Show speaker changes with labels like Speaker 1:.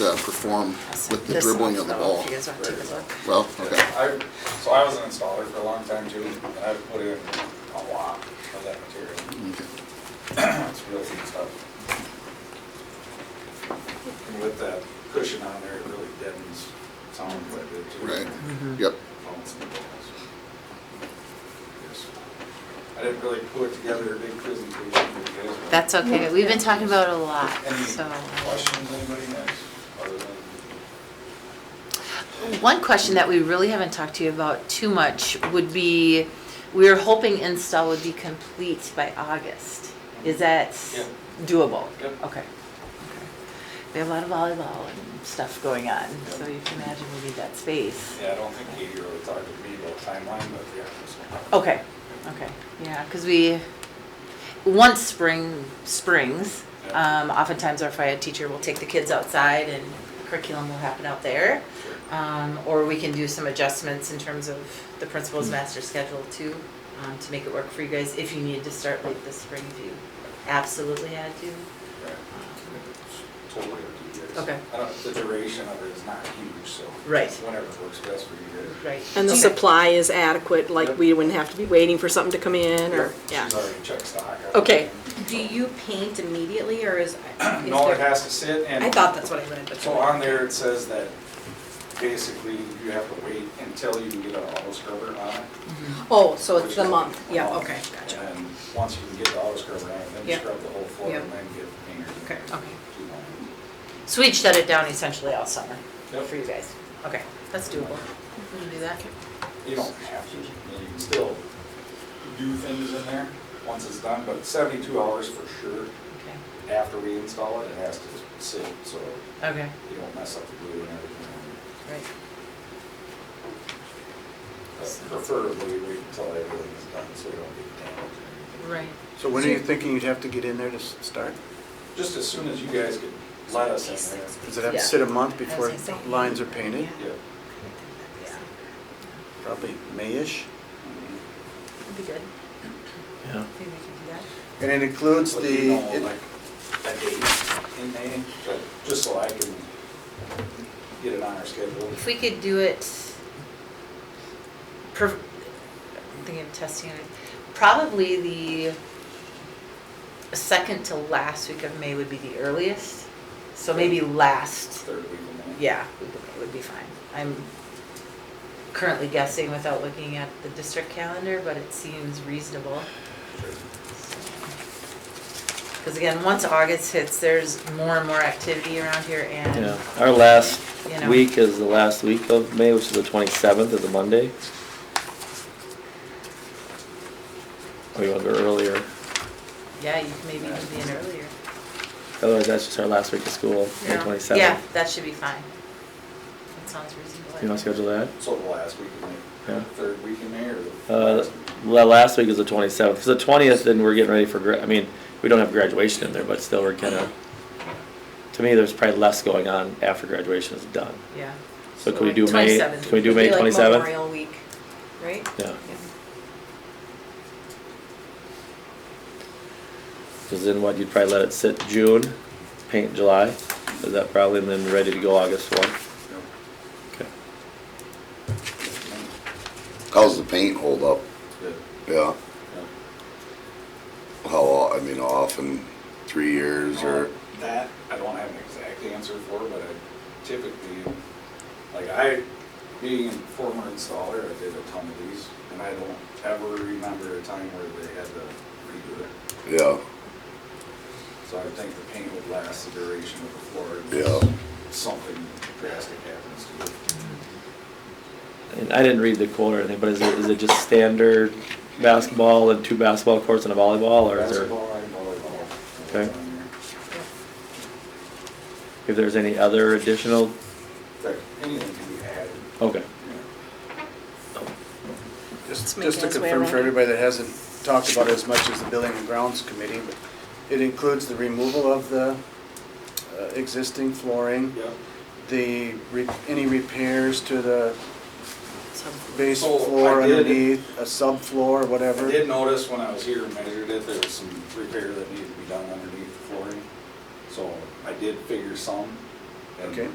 Speaker 1: uh, perform with the
Speaker 2: This
Speaker 1: dribbling
Speaker 2: one,
Speaker 1: of the
Speaker 2: though,
Speaker 1: ball.
Speaker 2: If you guys want to take a look.
Speaker 1: Well, okay.
Speaker 3: I, so I was an installer for a long time too, and I've put in a lot of that material.
Speaker 1: Okay.
Speaker 3: It's really good stuff. And with that cushion on there, it really deadens sound quite a bit too.
Speaker 1: Right. Yep.
Speaker 3: Phones and balls. Yes. I didn't really put together a big presentation. for you guys, but-
Speaker 2: That's okay, we've been talking about it a lot,
Speaker 3: Any
Speaker 2: so.
Speaker 3: questions anybody has, other than,
Speaker 2: One question that we really haven't talked to you about too much would be, we were hoping install would be complete by August. Is that
Speaker 3: Yeah.
Speaker 2: doable?
Speaker 3: Yep.
Speaker 2: Okay. Okay. We have a lot of volleyball and stuff going on, so you can imagine we need that space.
Speaker 3: yeah, I don't think Katie really talked to me about timeline, but yeah. so-
Speaker 2: Okay, okay, yeah, because we, once spring springs,
Speaker 3: Yeah.
Speaker 2: um, oftentimes our FIAD teacher will take the kids outside and curriculum will happen out there.
Speaker 3: Sure.
Speaker 2: Um, or we can do some adjustments in terms of the principal's
Speaker 3: Hmm.
Speaker 2: master schedule too, um, to make it work for you guys if you need to start late this spring if you absolutely had to.
Speaker 3: Right. Totally up to you guys.
Speaker 2: Okay.
Speaker 3: I don't, the duration of it is not huge, so.
Speaker 2: Right.
Speaker 3: Whenever it works best for you guys.
Speaker 2: Right.
Speaker 4: And the
Speaker 2: Do you-
Speaker 4: supply is adequate, like we wouldn't have to be waiting for something to come in or, yeah.
Speaker 3: She's already checked stock.
Speaker 4: Okay.
Speaker 5: Do you paint immediately or is? is
Speaker 3: No, it
Speaker 5: there-
Speaker 3: has to sit and.
Speaker 5: I thought that's what I read, but.
Speaker 3: So on there, it says that basically you have to wait until you can get an auto scrubber on it.
Speaker 5: Oh, so it's
Speaker 3: which
Speaker 5: the
Speaker 3: is
Speaker 5: month,
Speaker 3: a
Speaker 5: yeah,
Speaker 3: month.
Speaker 5: okay, gotcha.
Speaker 3: And then once you can get the auto scrubber on it, then you
Speaker 5: Yeah.
Speaker 3: scrub the whole floor
Speaker 5: Yeah.
Speaker 3: and then get the painter.
Speaker 5: Okay.
Speaker 2: Okay, so we'd shut it down essentially all summer for you guys. Okay, that's doable. We can do that.
Speaker 3: You don't have to, you can still do things in there once it's done, but seventy-two hours for sure.
Speaker 2: Okay.
Speaker 3: after we install it, it has to sit, so
Speaker 2: Okay,
Speaker 3: you don't mess up the glue and everything.
Speaker 2: right.
Speaker 3: But Preferably wait until everything's done, so we don't get damaged or anything.
Speaker 2: Right.
Speaker 6: So when are you thinking you'd have to get in there to s- start?
Speaker 3: Just as soon as you guys could let us in there.
Speaker 6: Does it have to
Speaker 2: Yeah.
Speaker 6: sit a month
Speaker 2: was
Speaker 6: before
Speaker 2: gonna say.
Speaker 6: lines are painted?
Speaker 3: Yeah.
Speaker 6: Probably May-ish?
Speaker 2: That'd be good.
Speaker 6: Yeah.
Speaker 2: Maybe we can do that.
Speaker 6: And it includes
Speaker 3: Let you
Speaker 6: the,
Speaker 3: know, like, a date in May, but just so I can get it on our schedule.
Speaker 2: If we could do it, per, I'm thinking of testing it, probably the second to last week of May would be the earliest. So maybe last,
Speaker 3: Third week of May.
Speaker 2: yeah, week of May would be fine. I'm currently guessing without looking at the district calendar, but it seems reasonable. Because again, once August hits, there's more and more activity around here and.
Speaker 7: Yeah, our last
Speaker 2: You know.
Speaker 7: week is the last week of May, which is the twenty-seventh, is a Monday. Or Oh, you want to go earlier,
Speaker 2: Yeah, you can maybe even be in earlier.
Speaker 7: otherwise that's just our last week of school, May
Speaker 2: Yeah. Yeah,
Speaker 7: twenty-seventh.
Speaker 2: that should be fine. That sounds reasonable. I
Speaker 7: You want to
Speaker 2: think.
Speaker 7: schedule that?
Speaker 3: So the last week of May.
Speaker 7: Yeah.
Speaker 3: Third week in May or? the
Speaker 7: Uh,
Speaker 3: last week?
Speaker 7: la- last week is the twenty-seventh, because the twentieth, then we're getting ready for gra, I mean, we don't have graduation in there, but still we're kind of, to me, there's probably less going on after graduation is done.
Speaker 2: Yeah.
Speaker 7: So can we do May,
Speaker 2: 27th.
Speaker 7: can we do May twenty-seventh?
Speaker 5: Memorial Week, right?
Speaker 7: Yeah. Because then what, you'd probably let it sit June, paint July, is that probably, and then ready to go August one? Okay.
Speaker 1: How's the paint hold up?
Speaker 3: Good.
Speaker 1: Yeah.
Speaker 3: Yeah.
Speaker 1: How, o- I mean, how often, three years or?
Speaker 3: Uh, That, I don't have an exact answer for, but I typically, like I, being a former installer, I did a ton of these, and I don't ever remember a time where they had to redo it.
Speaker 1: Yeah,
Speaker 3: So I think the paint would last the duration of the floor. unless
Speaker 1: yeah.
Speaker 3: Something drastic happens to it.
Speaker 7: And I didn't read the quote or anything, but is it, is it just standard basketball and two basketball courts and a volleyball, or is there,
Speaker 3: Basketball and volleyball.
Speaker 7: Okay.
Speaker 3: That's on there.
Speaker 7: if there's any other additional,
Speaker 3: In fact, anything can be added,
Speaker 7: okay.
Speaker 3: you know.
Speaker 4: Let's
Speaker 6: just
Speaker 4: make
Speaker 6: just to
Speaker 4: it his way
Speaker 6: confirm
Speaker 4: around.
Speaker 6: for everybody that hasn't talked about it as much as the Building and Grounds Committee, but it includes the removal of the uh, existing flooring,
Speaker 3: Yeah.
Speaker 6: the, re- any repairs to the base
Speaker 3: So I
Speaker 6: floor
Speaker 3: did-
Speaker 6: underneath, a subfloor, whatever.
Speaker 3: I did notice when I was here and measured it, there was some repair that needed to be done underneath the flooring. So I did figure some,
Speaker 8: And
Speaker 3: Okay.